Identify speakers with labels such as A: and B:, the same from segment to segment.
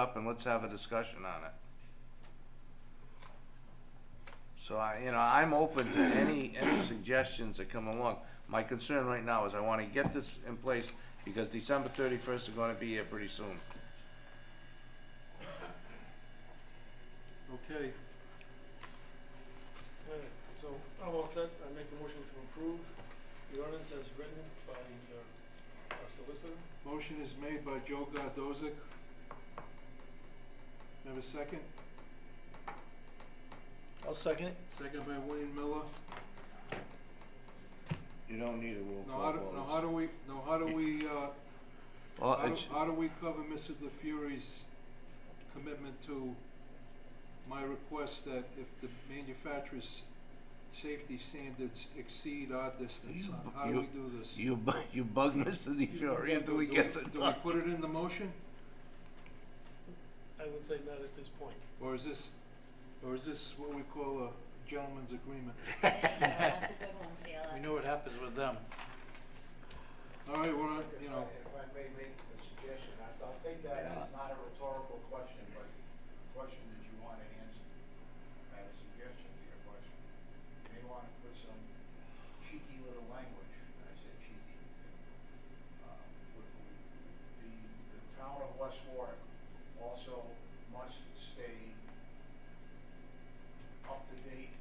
A: up and let's have a discussion on it. So I, you know, I'm open to any, any suggestions that come along. My concern right now is I wanna get this in place because December thirty-first is gonna be here pretty soon.
B: Okay,
C: Alright, So I'm all set. I make a motion to approve the ordinance as written by uh, our solicitor.
B: motion is made by Joe Gardozic. Have a second?
C: I'll second it.
B: Second by Wayne Miller.
A: You don't need a roll
B: Now, how
A: call
B: do,
A: vote.
B: now how do we, now how do we, uh,
A: Well,
B: how do,
A: it's-
B: how do we cover Mr. DeFury's commitment to my request that if the manufacturer's safety standards exceed our distance,
A: You-
B: how do we
A: you-
B: do this?
A: you bu- you bug Mr. DeFiore until he
B: Do we-
A: gets it
B: Do we
A: done.
B: put it in the motion,
C: I would say not at this point.
B: or is this, or is this what we call a gentleman's agreement?
D: That's a good one, Felix.
E: We know what happens with them.
B: All right, we're, on- you
F: If I
B: know,
F: if I may make a suggestion, I- I'll take that as not a rhetorical question, but a question that you want to answer. I have a suggestion to your question. You may want to put some cheeky little language, and I said cheeky. um, with- with The, the town of West Warwick also must stay up to date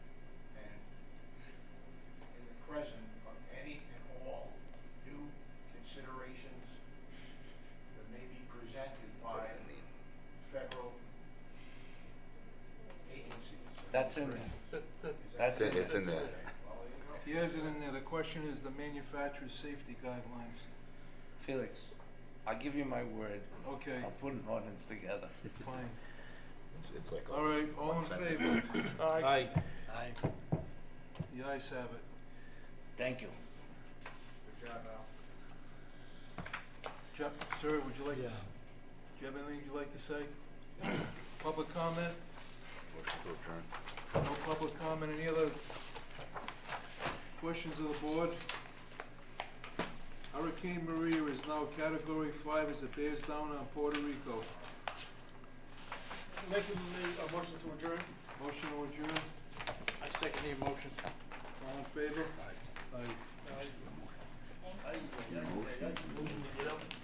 F: and in the present of any and all new considerations that may be presented by federal agencies.
A: That's in there. That's in
F: It's
A: there.
F: in there. Well, there you
B: he
F: go.
B: has it in there, the question is the manufacturer's safety guidelines,
A: Felix, I'll give you my word.
B: okay,
A: I'll put an ordinance together.
B: fine.
G: It's, it's like.
B: All right, all in
G: one sentence.
B: favor,
C: Aye.
E: Aye.
B: the ayes have it.
A: Thank you.
F: Good job, Al.
B: Jeff, sir, would you like to, s-
E: Yeah.
B: do you have anything you'd like to say? Public comment,
G: Motion to adjourn.
B: no public comment, any other questions of the board? Hurricane Maria is now category five as it bears down on Puerto Rico.
C: Make a, a motion to adjourn.
B: Motion to adjourn,
E: I second the motion.
B: all in favor? Aye.
C: Aye.
D: Thank you.
C: Aye. Aye. Aye. Motion to get up.